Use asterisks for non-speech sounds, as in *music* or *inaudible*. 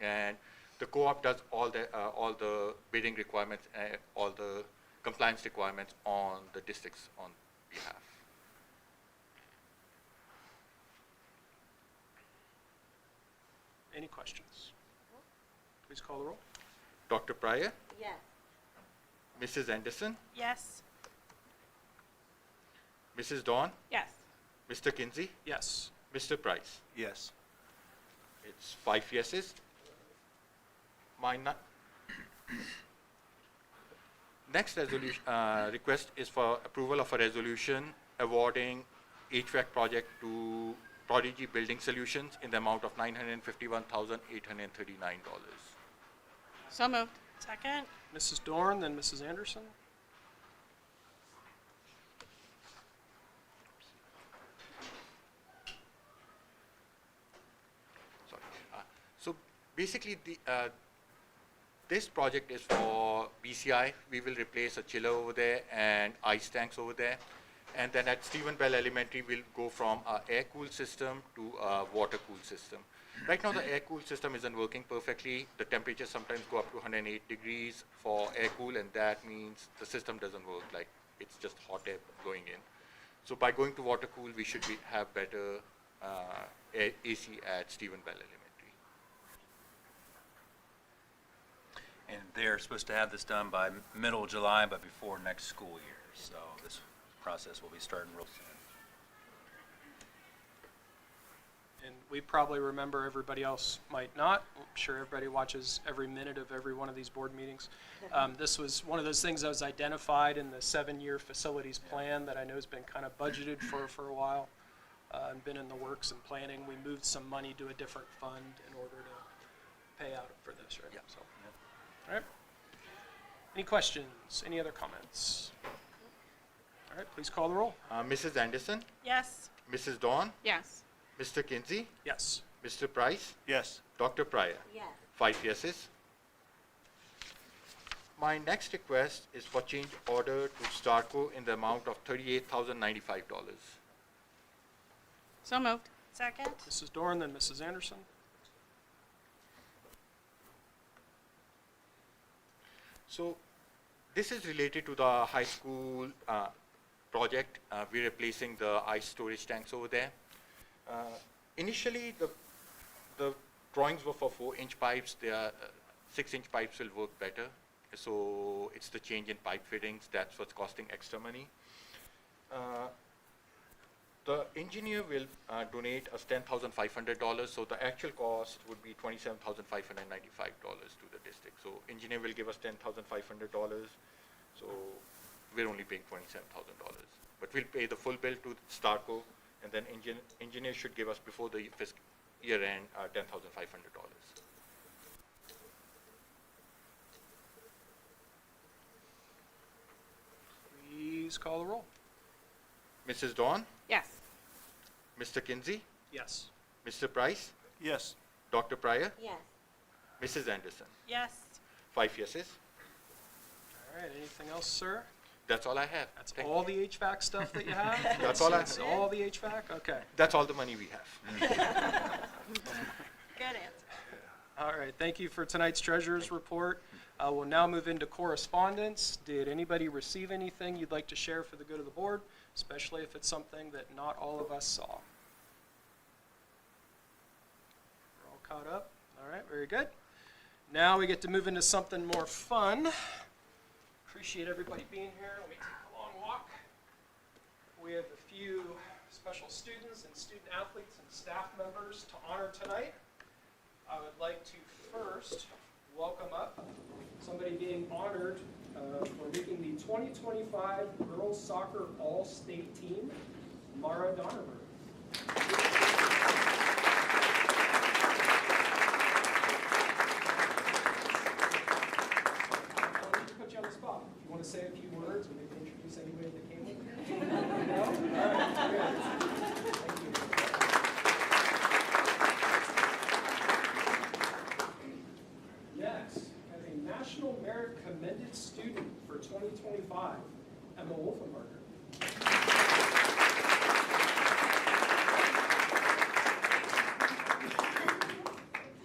The co-op does all the, uh, all the bidding requirements, and all the compliance requirements on the districts on behalf. Any questions? Please call the roll. Dr. Pryor, Yes. Mrs. Anderson, Yes. Mrs. Dawn, Yes. Mr. Kinsey, Yes. Mr. Price. Yes. It's five yeses. My ni- next resolution, uh, request is for approval of a resolution awarding HVAC project to Prodigy Building Solutions in the amount of nine hundred and fifty-one thousand, eight hundred and thirty-nine dollars. So moved. Second? Mrs. Dorn, then Mrs. Anderson. Sorry. Uh, So basically, the, uh, this project is for BCI. We will replace a chiller over there and ice tanks over there. And then at Stephen Bell Elementary, we'll go from a air-cooled system to a water-cooled system. Right now, the air-cooled system isn't working perfectly. The temperatures sometimes go up to 108 degrees for air-cool, and that means the system doesn't work, like it's just hot air going in. So by going to water cool, we should be, have better uh, A- AC at Stephen Bell Elementary. And they're supposed to have this done by middle of July, but before next school year. So this process will be starting real soon. And we probably remember, everybody else might not. I'm sure everybody watches every minute of every one of these board meetings. Um, This was one of those things that was identified in the seven-year facilities plan that I know has been kind of budgeted for, for a while, uh, and been in the works and planning. We moved some money to a different fund in order to pay out for this, right? Yep. So, All right. Any questions? Any other comments? All right, please call the roll. Uh, Mrs. Anderson, Yes. Mrs. Dawn, Yes. Mr. Kinsey, Yes. Mr. Price, Yes. Dr. Pryor. Yes. Five yeses. My next request is for change order to Starco in the amount of $38,095. So moved. Second? Mrs. Dorn, then Mrs. Anderson. So this is related to the high school uh, project. Uh, We're replacing the ice storage tanks over there. Uh, Initially, the, the drawings were for four-inch pipes. They are, uh, six-inch pipes will work better. So it's the change in pipe fittings, that's what's costing extra money. Uh, The engineer will uh, donate us $10,500, so the actual cost would be $27,595 to the district. So engineer will give us $10,500, so we're only paying $27,000. But we'll pay the full bill to Starco, and then engin- engineer should give us before the fiscal year end uh, $10,500. Please call the roll. Mrs. Dawn, Yes. Mr. Kinsey, Yes. Mr. Price, Yes. Dr. Pryor, Yes. Mrs. Anderson. Yes. Five yeses. All right, anything else, sir? That's all I have. That's Thank all you. the HVAC stuff that you *laughs* have? That's all I- That's all the HVAC? Okay. That's all the money we have. Good answer. All right, thank you for tonight's treasurer's report. Uh, We'll now move into correspondence. Did anybody receive anything you'd like to share for the good of the board, especially if it's something that not all of us saw? We're all caught up? All right, very good. Now we get to move into something more fun. Appreciate everybody being here. Let me take a long walk. We have a few special students and student athletes and staff members to honor tonight. I would like to first welcome up somebody being honored uh, for making the 2025 Girls Soccer All-State Team, Mara Donover. I'll need to put you on the spot. If you want to say a few words, or maybe introduce anybody that came with you. No? All right, good. Thank you. Next, as a National Merit Commended Student for 2025, Emma Wolfman.